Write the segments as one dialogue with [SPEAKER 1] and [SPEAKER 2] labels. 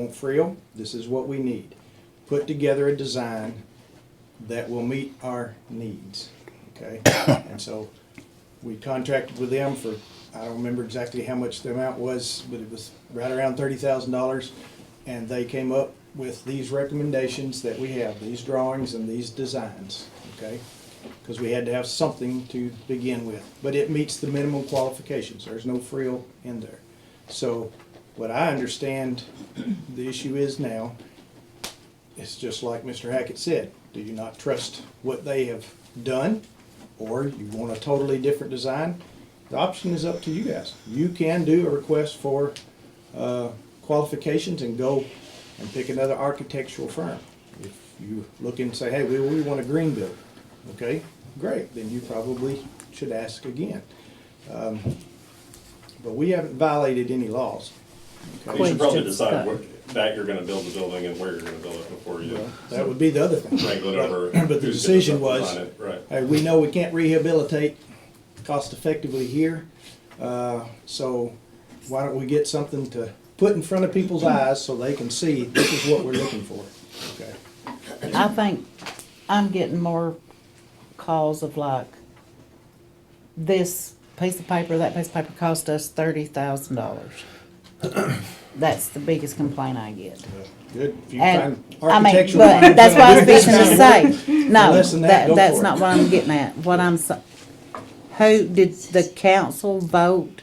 [SPEAKER 1] on Frill, this is what we need. Put together a design that will meet our needs, okay? And so we contracted with them for, I don't remember exactly how much the amount was, but it was right around thirty thousand dollars. And they came up with these recommendations that we have, these drawings and these designs, okay? Because we had to have something to begin with, but it meets the minimum qualifications, there's no frill in there. So what I understand the issue is now, it's just like Mr. Hackett said, do you not trust what they have done? Or you want a totally different design? The option is up to you guys. You can do a request for uh, qualifications and go and pick another architectural firm. If you look and say, hey, we, we want a green building, okay, great, then you probably should ask again. Um, But we haven't violated any laws. okay?
[SPEAKER 2] You
[SPEAKER 3] Quite
[SPEAKER 2] should probably
[SPEAKER 3] good
[SPEAKER 2] decide
[SPEAKER 3] stuff.
[SPEAKER 2] where, that you're gonna build the building and where you're gonna build it before you
[SPEAKER 1] That would be the other thing.
[SPEAKER 2] wrangle it over.
[SPEAKER 1] But the
[SPEAKER 2] who's gonna
[SPEAKER 1] decision was-
[SPEAKER 2] design it, Right.
[SPEAKER 1] Hey, we know we can't rehabilitate cost effectively here, uh, so why don't we get something to put in front of people's eyes so they can see this is what we're looking for, okay?
[SPEAKER 3] I think I'm getting more calls of like, this piece of paper, that piece of paper cost us thirty thousand dollars. That's the biggest complaint I get.
[SPEAKER 1] Good, if you
[SPEAKER 3] And,
[SPEAKER 1] find
[SPEAKER 3] I mean,
[SPEAKER 1] architectural.
[SPEAKER 3] but that's what I was fixing to
[SPEAKER 1] design-
[SPEAKER 3] say. No,
[SPEAKER 1] Less than that,
[SPEAKER 3] that,
[SPEAKER 1] go
[SPEAKER 3] that's
[SPEAKER 1] for
[SPEAKER 3] not
[SPEAKER 1] it.
[SPEAKER 3] what I'm getting at. What I'm, so- who, did the council vote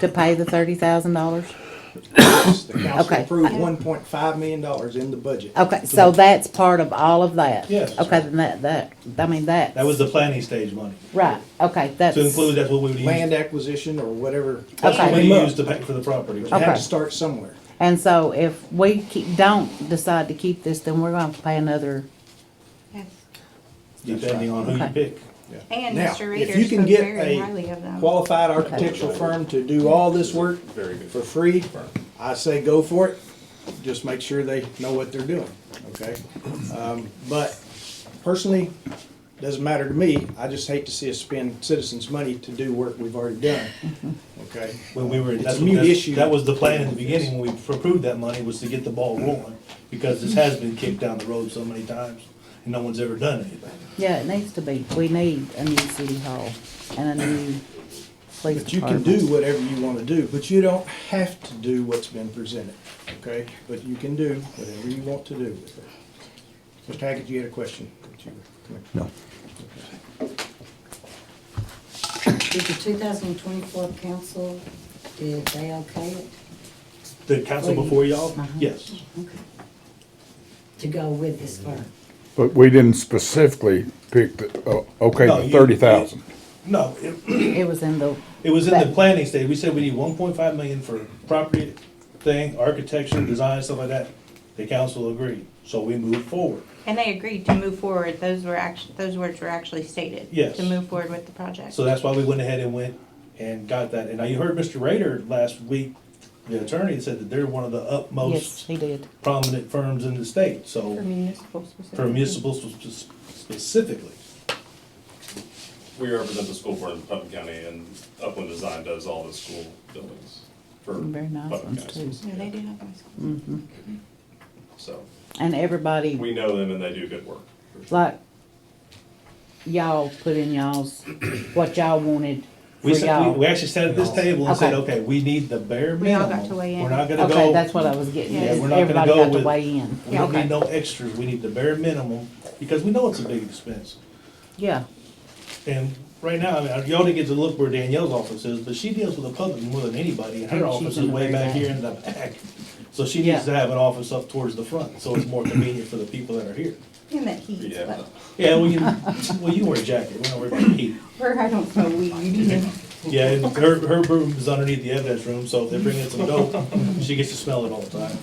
[SPEAKER 3] to pay the thirty thousand dollars?
[SPEAKER 1] The council
[SPEAKER 3] Okay.
[SPEAKER 1] approved one point five million dollars in the budget.
[SPEAKER 3] Okay, so that's part of all of that?
[SPEAKER 4] Yes.
[SPEAKER 3] Okay, then that, that, I mean, that.
[SPEAKER 4] That was the planning stage money.
[SPEAKER 3] Right, okay, that's.
[SPEAKER 4] To include, that's what we would use,
[SPEAKER 1] Land acquisition or whatever.
[SPEAKER 4] that's what
[SPEAKER 3] Okay.
[SPEAKER 4] we
[SPEAKER 1] Came up.
[SPEAKER 4] used to pay for the property.
[SPEAKER 1] You have
[SPEAKER 3] Okay.
[SPEAKER 1] to start somewhere.
[SPEAKER 3] And so if we keep, don't decide to keep this, then we're gonna have to pay another,
[SPEAKER 5] Yes,
[SPEAKER 4] Depending on who you
[SPEAKER 3] Okay.
[SPEAKER 4] pick.
[SPEAKER 1] Yeah.
[SPEAKER 5] And
[SPEAKER 1] Now,
[SPEAKER 5] Mr.
[SPEAKER 1] if
[SPEAKER 5] Reeder
[SPEAKER 1] you can
[SPEAKER 5] spoke
[SPEAKER 1] get
[SPEAKER 5] very
[SPEAKER 1] a
[SPEAKER 5] highly of them.
[SPEAKER 1] Qualified architectural firm to do all this work
[SPEAKER 2] Very good.
[SPEAKER 1] for free,
[SPEAKER 2] Firm.
[SPEAKER 1] I say go for it, just make sure they know what they're doing, okay? Um, But personally, doesn't matter to me, I just hate to see us spend citizens' money to do work we've already done, okay?
[SPEAKER 4] When we were,
[SPEAKER 1] It's
[SPEAKER 4] that's,
[SPEAKER 1] a mute
[SPEAKER 4] that's,
[SPEAKER 1] issue.
[SPEAKER 4] that was the plan in the beginning, when we approved that money, was to get the ball rolling. Because this has been kicked down the road so many times, and no one's ever done anything.
[SPEAKER 3] yeah, it needs to be, we need a new city hall and a new police
[SPEAKER 1] But you can
[SPEAKER 3] department.
[SPEAKER 1] do whatever you wanna do, but you don't have to do what's been presented, okay? But you can do whatever you want to do with it. Mr. Hackett, you had a question? No.
[SPEAKER 6] Did the 2024 council, did they okay it
[SPEAKER 4] The council before y'all,
[SPEAKER 3] Uh-huh.
[SPEAKER 4] yes.
[SPEAKER 6] to go with this firm?
[SPEAKER 7] But we didn't specifically pick the, oh, okay,
[SPEAKER 4] No,
[SPEAKER 7] the
[SPEAKER 4] you-
[SPEAKER 7] thirty thousand.
[SPEAKER 4] No, it,
[SPEAKER 3] It was in the,
[SPEAKER 4] it was in the
[SPEAKER 3] But-
[SPEAKER 4] planning stage, we said we need one point five million for property thing, architecture, design, stuff like that. The council agreed, so we moved forward.
[SPEAKER 5] And they agreed to move forward, those were actually, those words were actually stated.
[SPEAKER 4] Yes.
[SPEAKER 5] To move forward with the project.
[SPEAKER 4] So that's why we went ahead and went and got that. And now you heard Mr. Rader last week, the attorney said that they're one of the
[SPEAKER 3] yes,
[SPEAKER 4] utmost
[SPEAKER 3] he did.
[SPEAKER 4] prominent firms in the state,
[SPEAKER 5] For
[SPEAKER 4] so
[SPEAKER 5] municipal specifically.
[SPEAKER 4] for municipal spe- spe- specifically.
[SPEAKER 2] We represent the school board in Putnam County and Upland Design does all the school buildings for
[SPEAKER 3] Very nice
[SPEAKER 2] Putnam
[SPEAKER 3] ones
[SPEAKER 2] County.
[SPEAKER 3] too.
[SPEAKER 5] Yeah, they do have nice schools.
[SPEAKER 2] So
[SPEAKER 3] And everybody,
[SPEAKER 2] we know them and they do good work. for sure.
[SPEAKER 3] like, y'all put in y'all's, what y'all wanted for
[SPEAKER 4] We said, we- we
[SPEAKER 3] y'all.
[SPEAKER 4] actually sat at this table and said,
[SPEAKER 3] Okay.
[SPEAKER 4] okay, we need the bare
[SPEAKER 5] We all got
[SPEAKER 4] minimum.
[SPEAKER 5] to weigh in.
[SPEAKER 4] We're not gonna
[SPEAKER 3] Okay, that's
[SPEAKER 4] go,
[SPEAKER 3] what I was getting,
[SPEAKER 5] Yeah,
[SPEAKER 3] at, is
[SPEAKER 4] we're not gonna
[SPEAKER 3] everybody
[SPEAKER 4] go
[SPEAKER 3] got to
[SPEAKER 4] with-
[SPEAKER 3] weigh in.
[SPEAKER 4] we don't
[SPEAKER 3] Okay.
[SPEAKER 4] need no extras, we need the bare minimum, because we know it's a big expense.
[SPEAKER 3] Yeah,
[SPEAKER 4] And right now, I mean, y'all didn't get to look where Danielle's office is, but she deals with the public more than anybody, and
[SPEAKER 3] And she's
[SPEAKER 4] her office
[SPEAKER 3] in
[SPEAKER 4] is
[SPEAKER 3] the
[SPEAKER 4] way
[SPEAKER 3] very
[SPEAKER 4] back
[SPEAKER 3] back.
[SPEAKER 4] here in the back. So she needs to have an office up towards the front, so it's more convenient for the people that are here.
[SPEAKER 5] And that heat,
[SPEAKER 2] Yeah.
[SPEAKER 5] but,
[SPEAKER 4] Yeah, well, you, well, you wear a jacket, we don't worry about heat.
[SPEAKER 5] or I don't smoke weed.
[SPEAKER 4] Yeah, and her, her room is underneath the evidence room, so if they bring in some dope, she gets to smell it all the time.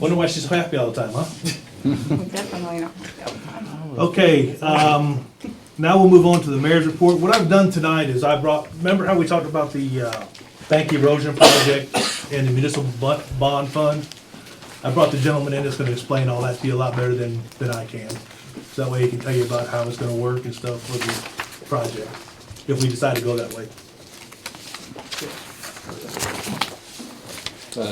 [SPEAKER 4] Wonder why she's so happy all the time, huh?
[SPEAKER 5] Definitely not.
[SPEAKER 4] Okay, um, now we'll move on to the mayor's report. What I've done tonight is I brought, remember how we talked about the, uh, bank erosion project and the municipal bu- bond fund? I brought the gentleman in that's gonna explain all that to you a lot better than, than I can. So that way he can tell you about how it's gonna work and stuff for the project, if we decide to go that way.